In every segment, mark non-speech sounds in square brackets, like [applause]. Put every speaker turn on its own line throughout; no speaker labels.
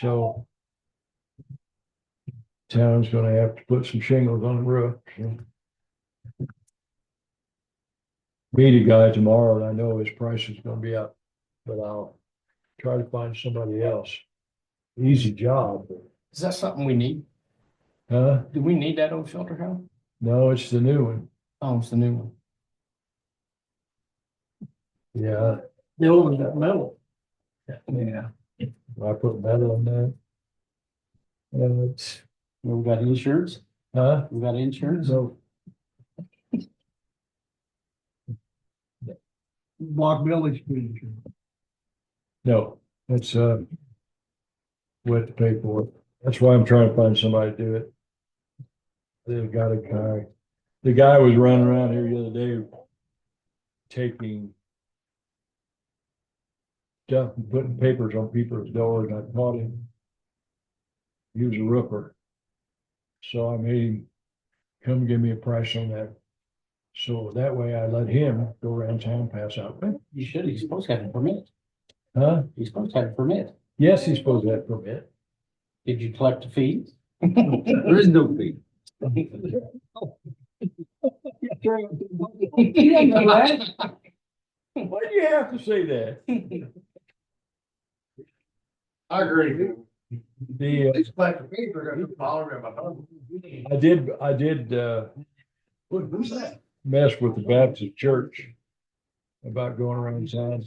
so. Town's gonna have to put some shingles on the roof, so. Meet a guy tomorrow, and I know his price is gonna be up, but I'll try to find somebody else. Easy job,
Is that something we need?
huh?
Do we need that old shelter house?
No, it's the new one,
Oh, it's the new one.
yeah,
The old one got metal. Yeah,
I put metal on that. Uh, it's,
we got insurance,
huh?
we got insurance.
So,
Block Village. Community.
no, that's, uh. With the paperwork, that's why I'm trying to find somebody to do it. They've got a guy, the guy was running around here the other day. Taking. Stuff, and putting papers on people's doors, and I caught him. He was a roofer. So I made him come give me a price on that. So that way I let him go around town, pass out,
You should, he's supposed to have a permit,
huh?
he's supposed to have a permit.
Yes, he's supposed to have permit.
Did you collect the fees?
There is no fee.
Why do you have to say that?
I agree.
The, uh,
It's like for me, they're gonna bother me about. oh,
I did, I did, uh,
What, who's that?
mess with the Baptist church about going around town.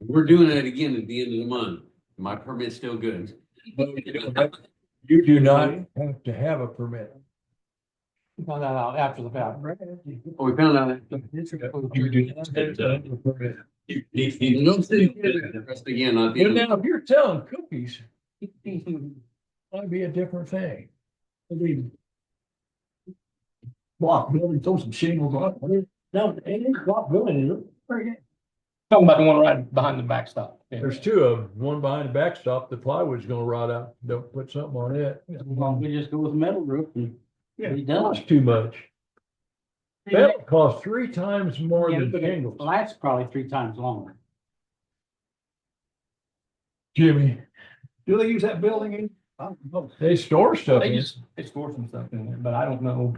We're doing it again at the end of the month. My permit's still good.
You do not have to have a permit.
Found that out after the fact.
Oh, We found out.
You do not have to have a permit.
Don't say that again, not the
But
end.
now, if you're selling cookies, might be a different thing.
Block building, throw some shingles on it.
No,
Ain't block building, is
talking about the one right behind the backstop.
There's two of them, one behind the backstop, the plywood's gonna rot out, don't put something on it.
We just go with metal roof and be done.
That's too much. That'll cost three times more
Yeah,
than
but it
shingles.
Lasts probably three times longer.
Jimmy,
Do they use that building in? I don't know.
they store stuff
They
in.
just, they store some stuff in there, but I don't know.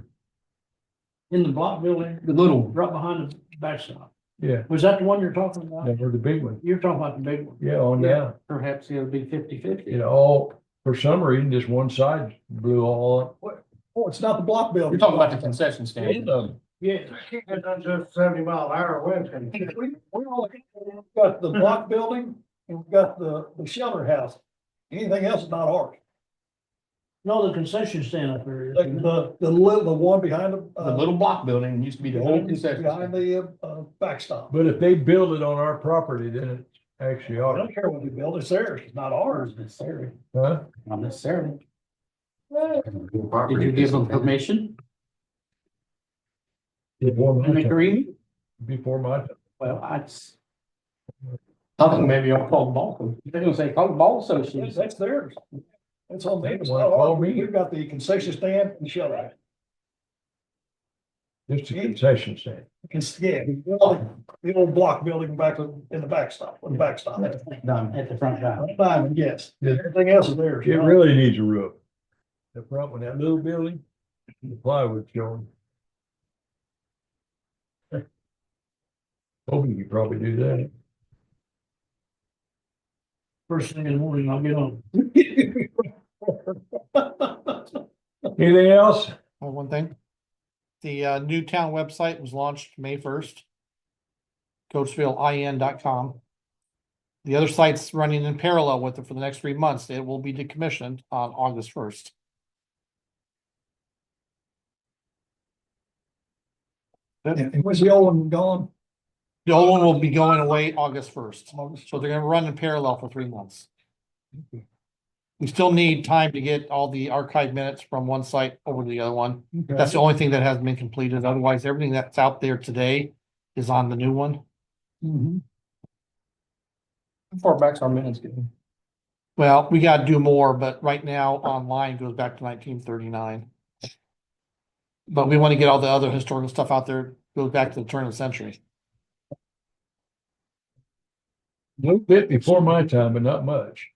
In the block building,
The little,
right behind the backstop.
Yeah,
Was that the one you're talking about?
they were the big one.
You're talking about the big one.
Yeah, on down.
perhaps it'll be fifty fifty.
It all, for some reason, just one side blew all up.
Oh, it's not the block building.
You're talking about the concession
It,
stand.
um,
Yeah. It's just seventy mile an hour wind. We, we all got the block building and we've got the, the shelter house. Anything else is not ours. No, the concession stand up there. The, the little, the one behind the. uh,
The little block building used to be the whole concession.
Behind
stand.
the, uh, backstop.
But if they build it on our property, then it's actually
I
ours,
don't care what you build, it's theirs, it's not ours.
Ours necessarily,
huh?
not necessarily. Did you give them permission?
Before
An
my time,
agreement?
before my time.
Well, I just. I think maybe I'll call the ball coach. They're gonna say, call the ball
Yes,
association.
That's theirs. It's on them. It's
They don't
not
wanna call
ours.
me.
We've got the concession stand and shelter. house.
It's a concession stand.
It's, yeah, the old- the old block building back in the backstop, on the backstop.
Done at the front door.
Diamond, yes.
Yeah.
Everything else is theirs.
It really needs a roof. The front one, that little building, the plywood showing. Hoping you probably do that.
First thing in the morning, I'll get [laughs] on.
Anything else?
Well, one thing. The uh, new town website was launched May first. CoatesvilleIN.com. The other site's running in parallel with it for the next three months. It will be decommissioned on August first.
And was the old one gone?
The old one will be going away August first, so they're gonna run in parallel for three months. We still need time to get all the archive minutes from one site over to the other one. That's the only thing that hasn't been completed. Otherwise, everything that's out there today is on the new one.
How Far back's our minutes getting.
Well, we gotta do more, but right now online goes back to nineteen thirty-nine. But we wanna get all the other historical stuff out there, goes back to the turn of the century.
A little bit before my time, but not much.